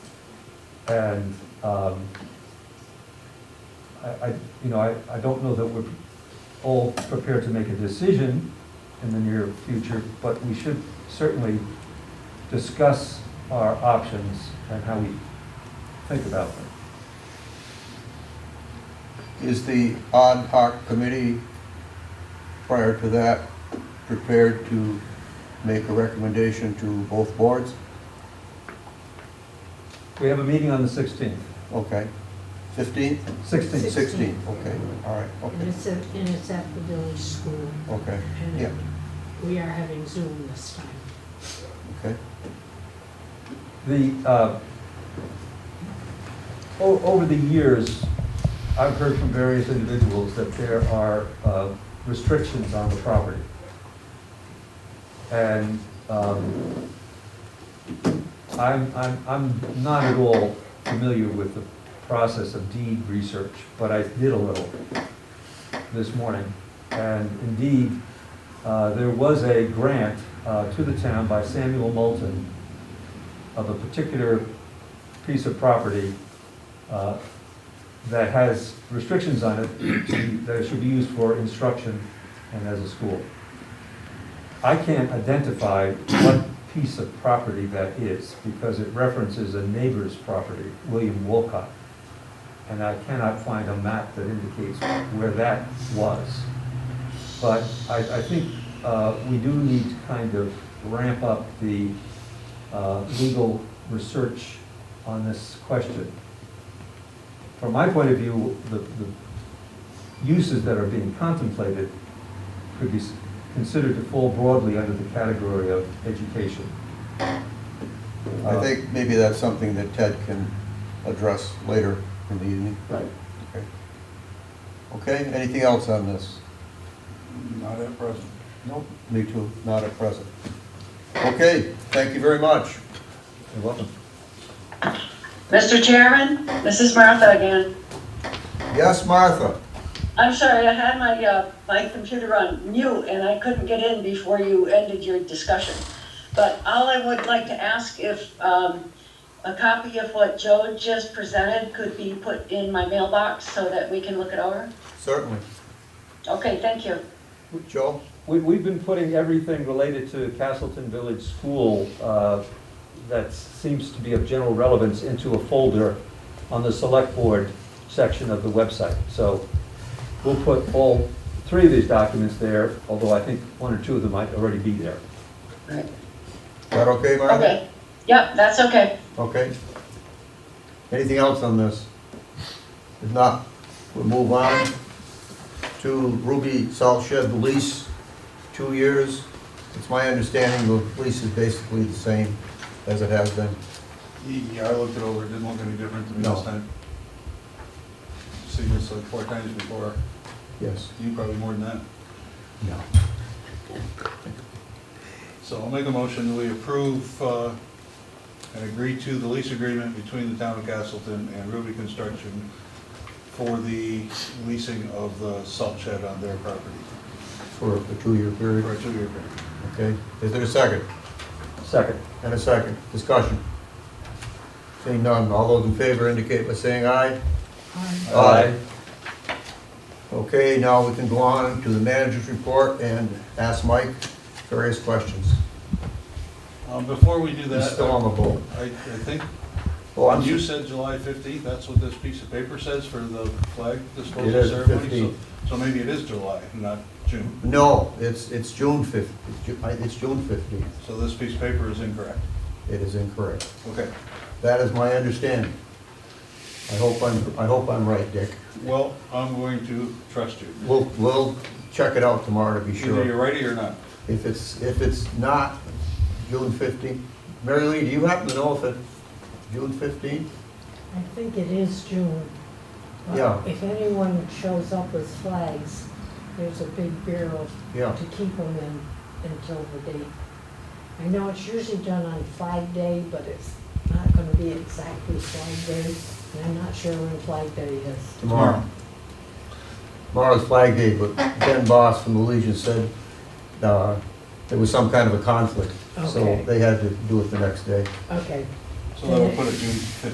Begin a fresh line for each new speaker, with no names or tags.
And, um, I, I, you know, I, I don't know that we're all prepared to make a decision in the near future, but we should certainly discuss our options and how we think about them.
Is the ad hoc committee, prior to that, prepared to make a recommendation to both boards?
We have a meeting on the sixteenth,
Okay. Fifteenth?
sixteenth,
Six-
Sixteenth, okay, all right,
And
okay,
it's at, and it's at the village school,
okay, yeah,
and we are having Zoom this time.
okay.
the, uh, o- over the years, I've heard from various individuals that there are, uh, restrictions on the property. And, um, I'm, I'm, I'm not at all familiar with the process of deed research, but I did a little this morning. And indeed, uh, there was a grant, uh, to the town by Samuel Moulton, of a particular piece of property uh, that has restrictions on it, to- that it should be used for instruction and as a school. I can't identify what piece of property that is, because it references a neighbor's property, William Wolcott. And I cannot find a map that indicates where that was. But I, I think uh, we do need to kind of ramp up the uh, legal research on this question. From my point of view, the, the uses that are being contemplated could be s- considered to fall broadly under the category of education.
I think maybe that's something that Ted can address later in the evening.
Right.
Okay. Okay, anything else on this?
Not at present.
Nope. Me too, not at present. Okay, thank you very much.
You're welcome.
Mr. Chairman, this is Martha again.
Yes, Martha?
I'm sorry, I had my, uh, my computer on mute and I couldn't get in before you ended your discussion. But all I would like to ask if, um, a copy of what Joe just presented could be put in my mailbox so that we can look it over?
Certainly.
Okay, thank you.
Joe?
We, we've been putting everything related to Castleton Village School, uh, that seems to be of general relevance, into a folder on the select board section of the website. So we'll put all three of these documents there, although I think one or two of them might already be there.
Right.
Is that okay, Martha?
Okay, yep, that's okay.
Okay. Anything else on this? If not, we'll move on to Ruby Salt Shed lease, two years. It's my understanding the lease is basically the same as it has been.
Yeah, I looked it over, it didn't look any different to me
No.
this time. Seen this like four times before,
Yes.
you probably more than that.
No.
So I'll make a motion that we approve uh, and agree to the lease agreement between the town of Castleton and Ruby Construction for the leasing of the salt shed on their property
For a two-year
for a
period,
two-year period.
okay? Is there a second?
Second.
And a second, discussion? Seeing none, all those in favor indicate by saying aye.
Um,
Aye. Okay, now we can go on to the manager's report and ask Mike various questions.
Um, Before we do
He's
that,
still on the boat.
I I think,
Oh, I'm
you
used,
said July 15th, that's what this piece of paper says for the flag
It
disposal
is
ceremony.
15th.
so- So maybe it is July, not June.
no, it's, it's June fifth, it's June fifteenth.
So this piece of paper is incorrect.
It is incorrect.
Okay,
That is my understanding. I hope I'm, I hope I'm right, Dick.
well, I'm going to trust you.
We'll, we'll check it out tomorrow to be
Either you're
sure.
righty or not.
If it's, if it's not June fifteenth, Mary Lee, do you happen to know if it's June fifteenth?
I think it is June. but
Yeah.
If anyone shows up with flags, there's a big barrel
Yeah.
to keep them in until the date. I know it's usually done on Flag Day, but it's not gonna be exactly Flag Day, and I'm not sure when Flag Day is.
Tomorrow. Tomorrow's Flag Day, but Ben Boss from the Legion said uh, there was some kind of a conflict. So
Okay.
they had to do it the next day.
Okay.
So then we'll put it June 15th.